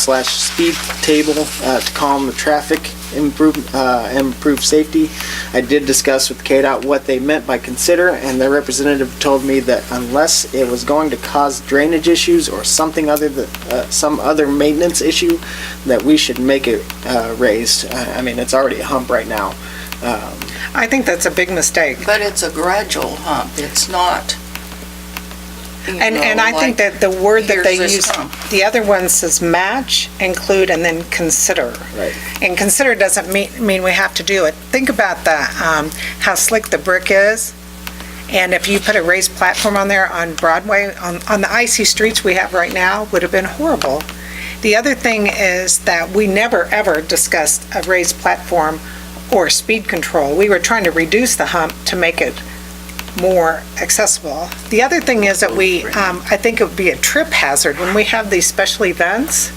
slash speed table uh, to calm the traffic, improve, uh, and improve safety. I did discuss with KDOT what they meant by consider, and their representative told me that unless it was going to cause drainage issues or something other than, uh, some other maintenance issue, that we should make it uh, raised. I I mean, it's already a hump right now. Um, I think that's a big mistake. But it's a gradual hump, it's not. you And, know, and I think like, that the word that they here's this use, hump. the other one says match, include, and then consider. Right. And consider doesn't mean, mean we have to do it. Think about the, um, how slick the brick is. And if you put a raised platform on there on Broadway, on, on the icy streets we have right now, would have been horrible. The other thing is that we never, ever discussed a raised platform or speed control. We were trying to reduce the hump to make it more accessible. The other thing is that we, um, I think it would be a trip hazard when we have these special events.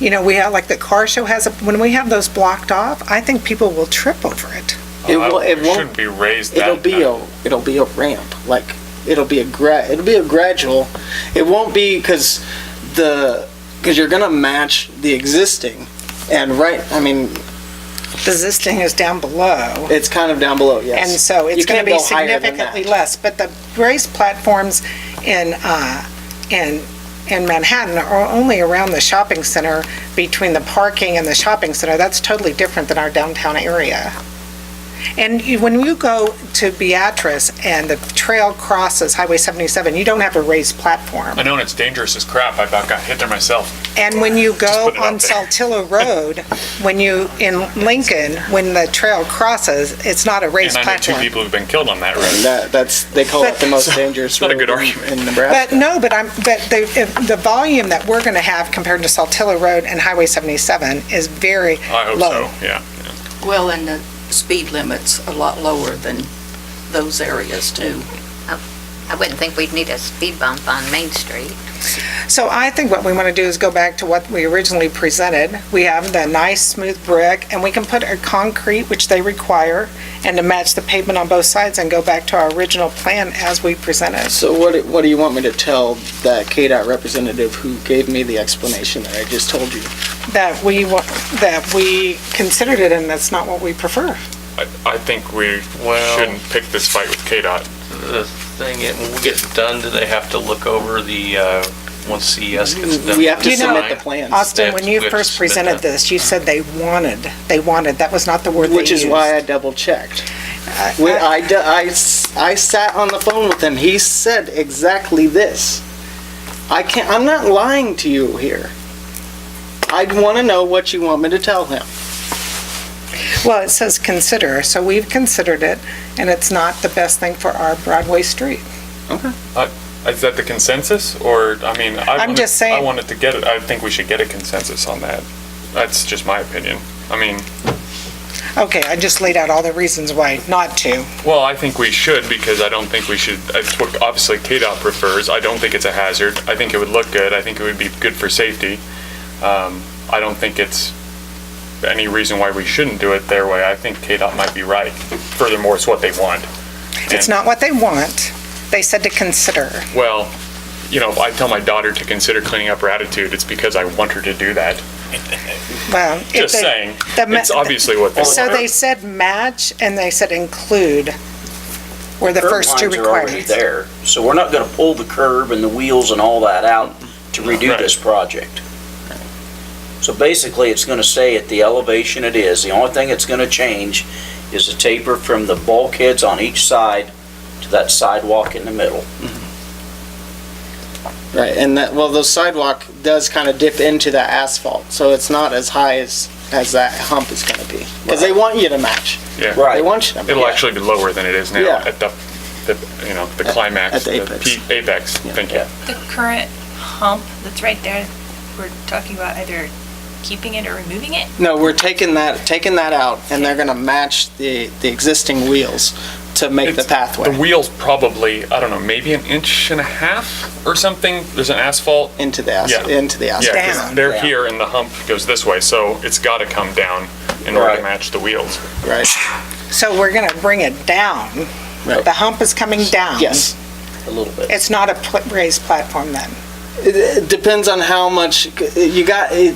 You know, we have, like the car show has, a- when we have those blocked off, I think people will trip over it. Oh, It will- it won't- Shouldn't be raised that. It'll be a, it'll be a ramp, like, it'll be a gra, it'll be a gradual, it won't be, because the, because you're gonna match the existing, and right, I mean, Because this thing is down below, it's kind of down below, and yes. so You it's going can't to be go higher than significantly that. less. But the raised platforms in, uh, in, in Manhattan are only around the shopping center, between the parking and the shopping center. That's totally different than our downtown area. And you- when you go to Beatrice and the trail crosses Highway 77, you don't have a raised platform. I know, and it's dangerous as crap. I about got hit there myself. And when you go put it on out there. Saltillo Road, when you, in Lincoln, when the trail crosses, it's not a raised And I know two platform. people who've been killed on that road. That, that's, they call it the most dangerous not a road good in argument. in Nebraska. But no, but I'm, but the, if- the volume that we're going to have compared to Saltillo Road and Highway 77 is very I hope low. so, yeah. Well, and the speed limit's a lot lower than those areas too. I wouldn't think we'd need a speed bump on Main Street. So I think what we want to do is go back to what we originally presented. We have the nice smooth brick, and we can put a concrete, which they require, and to match the pavement on both sides, and go back to our original plan as we presented. So what, do- what do you want me to tell that KDOT representative who gave me the explanation that I just told you? That we, wa- that we considered it, and that's not what we prefer. I, I think we Well- shouldn't pick this fight with KDOT. The thing, is, when we get done, do they have to look over the, uh, once CES gets done? We have to You know- submit the plans, Austin, when you They have to- they have to first submit presented that. this, you said they wanted, they wanted, that was not the word they which is used. why I double checked. I- We- I- I, d- I s- I sat on the phone with him. He said exactly this. I can't, I'm not lying to you here. I want to know what you want me to tell him. Well, it says consider, so we've considered it, and it's not the best thing for our Broadway street. Is that the consensus, or, I mean, I I'm wanted- just saying- I wanted to get it, I think we should get a consensus on that. That's just my opinion. I mean, Okay, I just laid out all the reasons why not to. well, I think we should, because I don't think we should, it's what obviously KDOT prefers. I don't think it's a hazard. I think it would look good. I think it would be good for safety. Um, I don't think it's any reason why we shouldn't do it their way. I think KDOT might be right. Furthermore, it's what they want. It's not what they want. They said to consider. Well, you know, if I tell my daughter to consider cleaning up her attitude, it's because I want her to do that. Well, if Just they- saying, the ma- it's obviously what they So they want. said match, and they said include were the first two Curb lines are already requirements. there, so we're not gonna pull the curb and the wheels and all that out to redo Right. this project. So basically, it's gonna stay at the elevation it is. The only thing it's gonna change is the taper from the bulkheads on each side to that sidewalk in the middle. Right, and that, well, the sidewalk does kind of dip into that asphalt, so it's not as high as, as that hump is going to be. Because they want you to match. Yeah, They Right. want you to match. it'll actually be lower than it is now Yeah. at the, the, you know, the climax, at the the apex. peak- apex, thank you. Yeah. The current hump that's right there, we're talking about either keeping it or removing it? No, we're taking that, taking that out, and they're going to match the, the existing wheels to make the It's- The pathway wheel's probably, I don't know, maybe an inch and a half or something. There's an asphalt. into the, as- Yeah. into the asphalt. Yeah, 'cause Down. they're Down. here and the hump goes this way, so it's gotta come down in order to Right. match the wheels. Right, So we're going to bring it down. Right. The hump is coming down. yes. A little bit. It's not a pl- raised platform then? It- It depends on how much, you got, it-